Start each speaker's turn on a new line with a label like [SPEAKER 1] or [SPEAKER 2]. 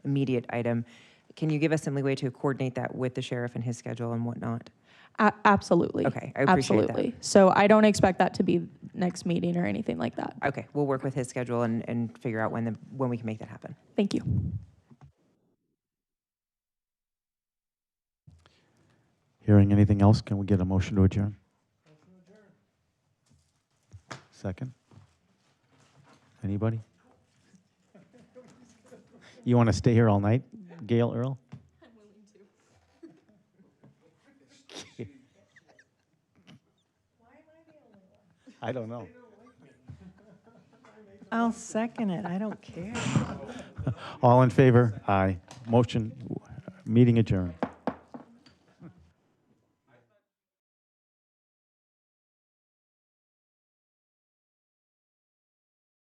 [SPEAKER 1] immediate item. Can you give us some leeway to coordinate that with the sheriff and his schedule and whatnot?
[SPEAKER 2] A- Absolutely.
[SPEAKER 1] Okay, I appreciate that.
[SPEAKER 2] Absolutely. So I don't expect that to be next meeting or anything like that.
[SPEAKER 1] Okay, we'll work with his schedule and, and figure out when the, when we can make that happen.
[SPEAKER 2] Thank you.
[SPEAKER 3] Hearing anything else, can we get a motion to adjourn? Second? Anybody? You want to stay here all night, Gail Earl? I'm willing to. I don't know.
[SPEAKER 4] I'll second it. I don't care.
[SPEAKER 3] All in favor? Aye. Motion, meeting adjourned.